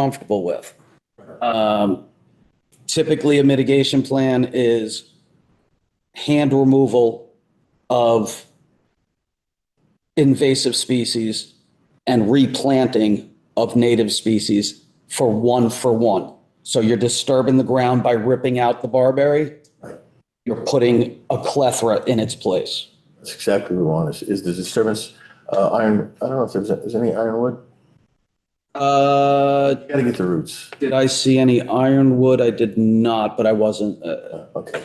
comfortable with. Um, Typically, a mitigation plan is hand removal of invasive species and replanting of native species for one for one. So you're disturbing the ground by ripping out the barberry. You're putting a clethra in its place. That's exactly what we want, is, is the disturbance, uh, iron, I don't know if there's, is any ironwood? Uh, You Gotta get the roots. did I see any ironwood? I did not, but I wasn't, uh, Okay.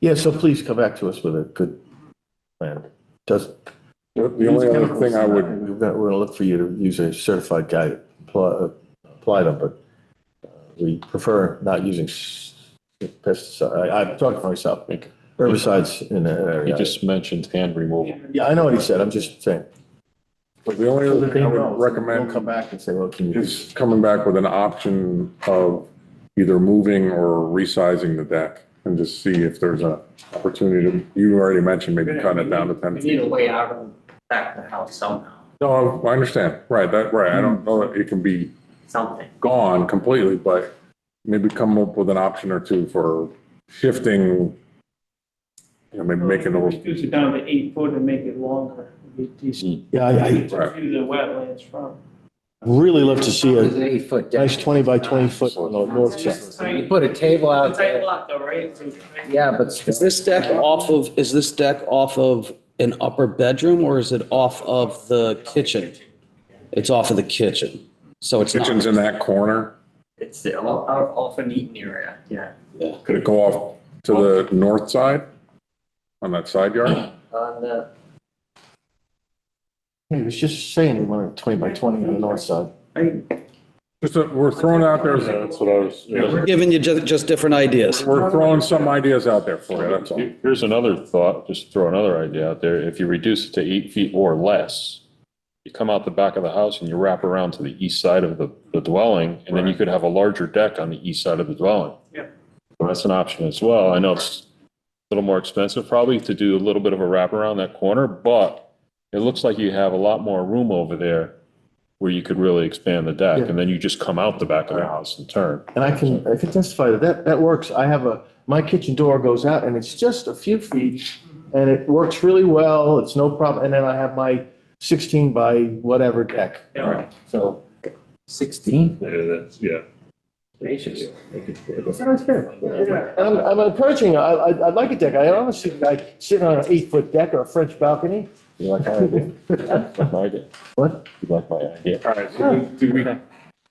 Yeah, so please come back to us with a good plan. Does. The the only other thing I would, We've got, we're gonna look for you to use a certified guy, to apply, apply them, but uh, we prefer not using pesticide, I, I'm talking for myself, herbicides in that he area. just mentioned hand removal. Yeah, I know what he said, I'm just saying. But the only other thing I would We'll Come recommend back and say, well, can you? is coming back with an option of either moving or resizing the deck and just see if there's a opportunity to, you already mentioned maybe cut it down to ten We need a feet. way out of back of the house somehow, No, I understand. Right, that, right. I don't know that it can be something. gone completely, but maybe come up with an option or two for shifting, you know, maybe making a little, Reduce it down to eight foot and make it longer. It'd be decent Yeah, I, I, to view the wetlands from. Really love to see It was a an eight foot deck. nice 20 by 20 foot on the north side. You put a table out Tight there, lot though, right? So- yeah, but Is this deck off of, is this deck off of an upper bedroom or is it off of the kitchen? It's off of the kitchen. So it's not, kitchen's in that corner. It's the- out off an eating area, yeah. Could it go off to the north side on that side yard? On Uh, the, He was just saying he wanted 20 by 20 on the north side. Just, that we're throwing out there, that's what I was, we're giving you just, just different ideas. we're throwing some ideas out there for you, that's all. Here- Here's another thought, just throw another idea out there. If you reduce it to eight feet or less, you come out the back of the house and you wrap around to the east side of the, the dwelling, and then you could have a larger deck on the east side of the dwelling. Yep. So That's an option as well. I know it's a little more expensive probably to do a little bit of a wraparound that corner, but it looks like you have a lot more room over there where you could really expand the deck, and then you just come out the back of the house and turn. And I can, I can testify that that, that works. I have a, my kitchen door goes out and it's just a few feet and it works really well. It's no problem. And then I have my 16 by whatever deck. Yeah. So. sixteen. yeah. Sounds good. And I'm, I'm encouraging, I, I, I'd like a deck. I honestly, like sitting on an eight foot deck or a French balcony. You like my idea? Like my idea? What? You like my idea? All right, so do we,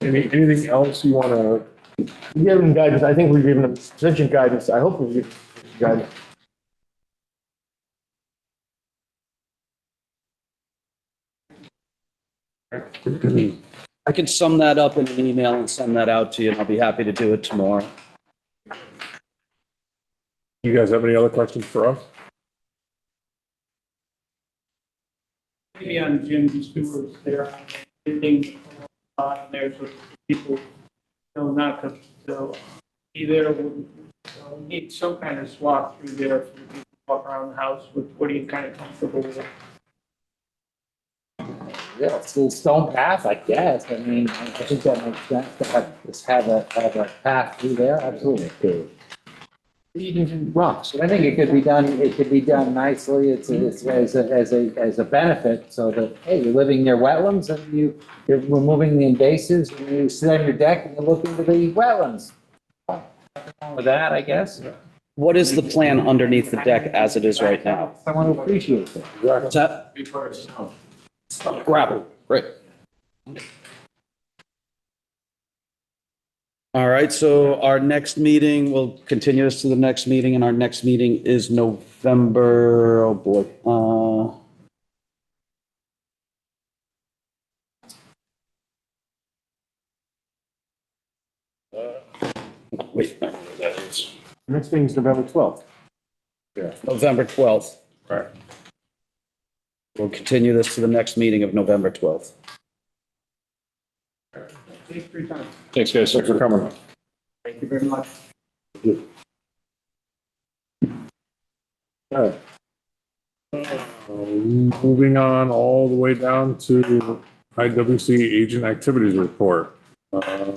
any, anything else you want to, We've given them guidance, I think we've given them sufficient guidance, I hope we've given guidance. I could sum that up in an email and send that out to you and I'll be happy to do it tomorrow. you guys have any other questions for us? Maybe on Jim Stewart's there, anything on there so people know not to, so uh, either we so we need some kind of swap through there for people to walk around the house with what are you kind of comfortable with? Yeah, it's a little stone path, I guess. I mean, I think that makes sense to have, just have a, have a path through there, absolutely. You can rocks, but I think it could be done, it could be done nicely. It's, it's as a, as a, as a benefit so that, hey, you're living near wetlands and you, you're removing the invasives and you sit on your deck and you look into the wetlands. Nothing wrong With that, I guess. What is the plan underneath the deck as it is right now? Someone who appreciates it. What's that? Gravel, great. All right, so our next meeting, we'll continue this to the next meeting, and our next meeting is November, oh boy, uh. Wait, Next thing is November twelfth. November 12th. Right. We'll continue this to the next meeting of November 12th. Take your time. Thanks, guys. Thanks for coming. thank you very much. All right. Uh, Moving on all the way down to IWC agent activities report. Uh,